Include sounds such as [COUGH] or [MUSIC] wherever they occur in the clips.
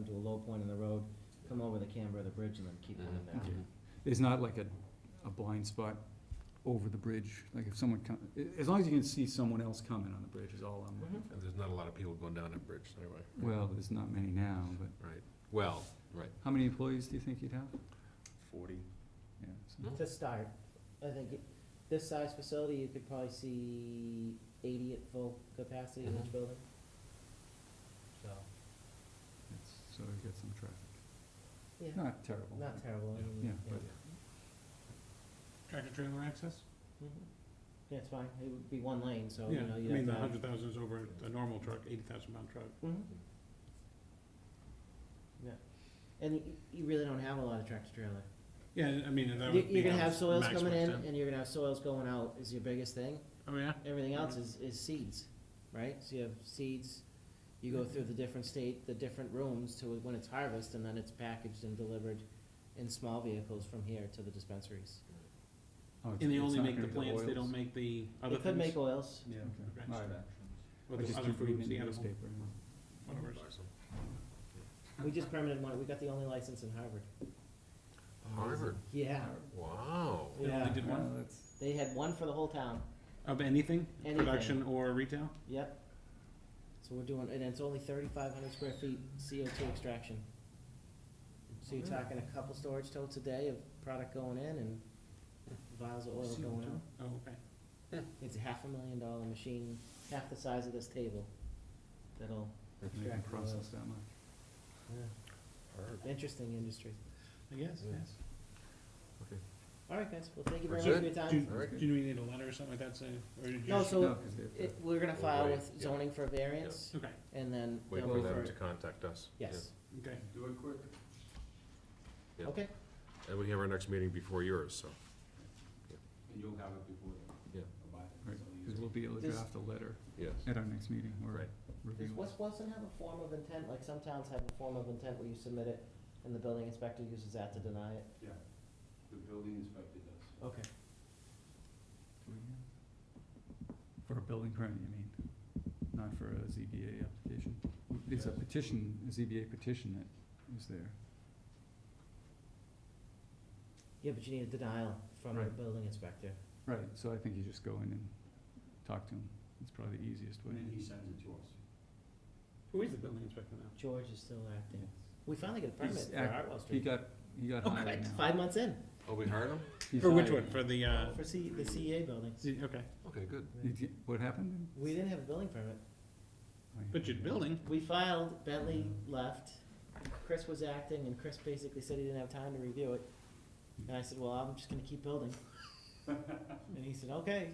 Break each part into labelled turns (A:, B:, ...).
A: to a low point in the road, come over the Canberra Bridge and then keep going
B: Mhm.
C: Mm-hmm.
A: back.
C: There's not like a, a blind spot over the bridge, like if someone come, a- as long as you can see someone else coming on the bridge is all I'm looking
A: Mhm.
C: for.
B: And there's not a lot of people going down that bridge anyway.
C: Well, there's not many now, but
B: Right, well, right.
C: how many employees do you think you'd have?
D: Forty.
C: Yeah, so-
A: To start, I think it- this size facility, you could probably see eighty at full capacity in each
C: Mm-hmm.
B: Mhm.
A: building. So,
C: it's- so we've got some traffic.
A: yeah,
C: Not terrible.
A: not terrible. I mean,
C: Yeah, but-
E: Tractor trailer access?
A: Mhm. Yeah, it's fine, it would be one lane, so,
E: Oh, Yeah,
A: you know,
E: I
A: you
E: mean, the
A: have
E: hundred thousand is over a normal truck, eighty thousand pound truck.
A: Mhm. Yeah, and you, you really don't have a lot of tractor trailer.
E: Yeah, I mean, that
A: You-
E: would be.
A: You're gonna
E: our
A: have soils
E: max
A: coming in,
E: extent.
A: and you're gonna have soils going out is your biggest thing.
E: Oh, yeah?
A: Everything else is, is seeds, right? So you have seeds, you go through the different state, the different rooms to when it's harvest, and then it's packaged and delivered in small vehicles from here to the dispensaries.
C: Oh, it's-
E: And they
C: it's
E: only
C: not
E: make the
C: gonna be
E: plants, they
C: oils?
E: don't make the other
A: They
E: things?
A: could make oils.
C: Yeah, okay,
E: Okay.
C: all right.
E: Or
C: I
E: the
C: just
E: other
C: keep reading
E: foods,
C: in
E: the
C: the
E: animal,
C: newspaper.
E: whatever. it is.
A: We just permitted one, we got the only license in Harvard.
B: Harvard,
A: Yeah,
B: wow.
E: They only
A: Yeah.
E: did one,
C: Well, that's-
A: they had one for the whole town,
E: of anything,
A: Anything.
E: production or retail?
A: yep. So we're doing, and it's only thirty-five hundred square feet CO two extraction. So you're talking a couple storage totes a day of product going in and vials of oil going out.
E: Oh, okay.
A: It's a half a million dollar machine, half the size of this table. That'll,
C: they can
A: Extract the
C: process
A: oils.
C: that much.
A: yeah, interesting industry.
E: I
C: Hmm.
E: guess,
B: Yeah.
E: yes.
A: All right, guys, well, thank you very
B: That's
A: much for your
E: Do,
A: time.
B: Alright.
E: do we need a letter or something like that, say, or did you?
A: No,
E: just-
A: so-
C: No, 'cause they-
A: It, we're gonna
B: We'll
A: file
B: wait,
A: with
B: yeah.
A: zoning for a variance
E: Okay,
A: and then
B: Wait
A: they'll
B: for
A: be
B: them
A: for,
B: to contact us.
A: yes,
E: okay.
D: Do it quick.
B: Yeah.
A: okay,
B: Yeah. And we have our next meeting before yours, so.
D: And you'll have it before then.
B: Yeah.
D: By then,
C: Right,
D: so you-
C: Cause we'll be able to
A: Does-
C: draft a letter
B: Yes.
C: at our next meeting or
B: Right.
A: does
C: review. it.
A: West Boylston have a form of intent, like some towns have a form of intent where you submit it and the building inspector uses that to deny it?
D: Yeah, the building inspector does.
A: Okay.
C: For a building permit, you mean, not for a ZBA application? There's a
D: Yes.
C: petition, a ZBA petition that is there.
A: Yeah, but you need a denial from the
C: Right.
A: building inspector.
C: Right, so I think you just go in and talk to him. It's probably the easiest way.
D: And then he sends it to us.
E: Who is the building inspector now?
A: George is still acting.
C: Yeah.
A: We finally got a permit
C: He's
A: for
C: act-
A: Hartwell
C: He
A: Street.
C: got, he got
A: Okay,
C: hired
A: it's
C: now.
A: Five months in.
B: Oh, we hired him?
C: He's
E: For which
C: hired.
E: one, for the, uh,
A: For C, the CEA building.
E: see- okay,
B: Okay, good.
C: Did you- What happened?
A: We didn't have a building permit.
E: but you're building,
A: We filed, Bentley
C: Mm-hmm.
A: left, Chris was acting, and Chris basically said he didn't have time to review it. And I said, well, I'm just gonna keep
C: [LAUGHS]
A: building. And he said, okay.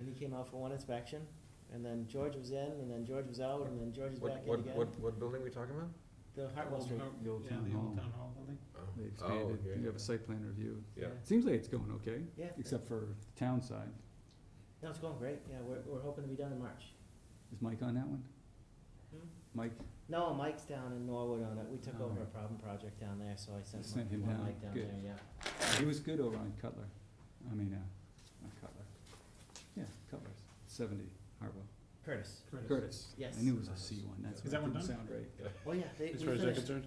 A: And he came out for one inspection, and then George was in, and then George was out, and then George was
B: What,
A: back in
B: what,
A: again.
B: what, what building are we talking about?
A: The Hartwell
E: Old
A: Street.
E: Har-
C: The old
E: yeah,
C: town
E: the old
C: hall.
E: town hall building.
B: Oh.
C: They
B: Oh,
C: expanded.
B: yeah,
C: You have a site plan review.
B: Yeah.
C: Seems like it's going okay,
A: Yeah,
C: except for the town side.
A: no, it's going great, yeah, we're, we're hoping to be done in March.
C: Is Mike on that one?
A: Hmm?
C: Mike,
A: No, Mike's down in Norwood on it, we took
C: Oh.
A: over a problem project down there, so I sent
C: Sent him
A: one, one
C: down.
A: Mike down there,
C: Good.
A: yeah.
C: he was good over on Cutler. I mean, uh, not Cutler. Yeah, Cutler's, seventy, Hartwell.
A: Curtis,
C: Curtis.
A: Yes.
C: I knew it was a C one, that's
B: Is
C: why
E: that
C: it
E: one
C: didn't
E: done?
C: sound right.
A: oh yeah, they, we
E: As far as I'm
A: finished,
E: concerned.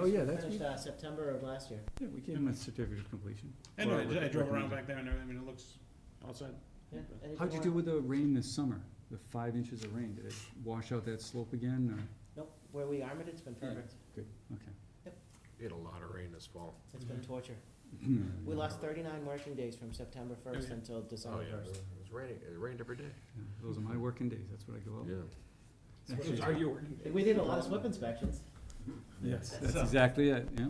C: Oh, yeah, that's
A: finished,
C: me.
A: uh, September of last year.
C: Yeah, we gave him a certificate of completion.
E: I know,
C: Or
E: I dro- I drove around
C: recommended.
E: back there and everything, I mean, it looks all set.
A: Yeah,
E: But-
A: anything
C: How'd you
A: more?
C: do with the rain this summer? The five inches of rain, did it wash out that slope again, or,
A: Nope, where we armored it's been
C: Yeah.
A: perfect,
C: okay.
B: We had a lot of rain this fall.
A: it's been
E: Mhm.
A: torture.
C: Hmm.
A: We lost thirty-nine working days from September first
E: yeah.
A: until
B: Oh,
A: December
B: yeah, it
A: first.
B: was raining, it rained every day.
C: Yeah, Those are my working days, that's what I go out.
E: Those Are you working?
A: We did a lot of SWIP inspections.
C: Yes, that's exactly it, yeah.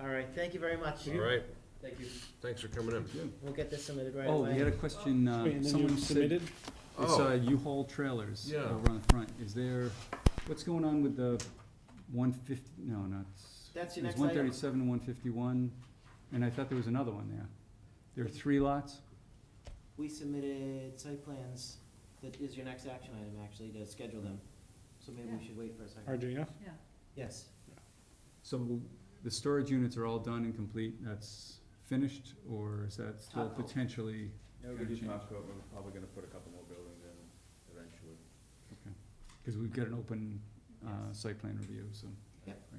A: All right, thank you very much.
B: All right,
A: Thank you.
B: thanks for coming in.
A: We'll get this submitted right
C: Oh,
A: away.
C: we had a question, uh,
E: Wait, and then you
C: someone said,
E: submitted?
C: it's,
B: Oh.
C: uh, U-Haul trailers
B: Yeah.
C: over on the front, is there, what's going on with the one fifty, no, not. s-
A: That's your
C: There's
A: next item.
C: one thirty-seven, one fifty-one, and I thought there was another one there. There are three lots?
A: We submitted site plans, that is your next action item, actually, to schedule them, so maybe we should wait for a second.
E: RJF?
A: Yes,
C: So the storage units are all done and complete, that's finished, or is that still
A: Top coat.
C: potentially?
D: Yeah,
C: Gonna
D: we did
C: change.
D: top coat, we're probably gonna put a couple more buildings in eventually.
C: Because we've got an open, uh,
A: Yes.
C: site plan review, so.
A: Yep.
C: Right.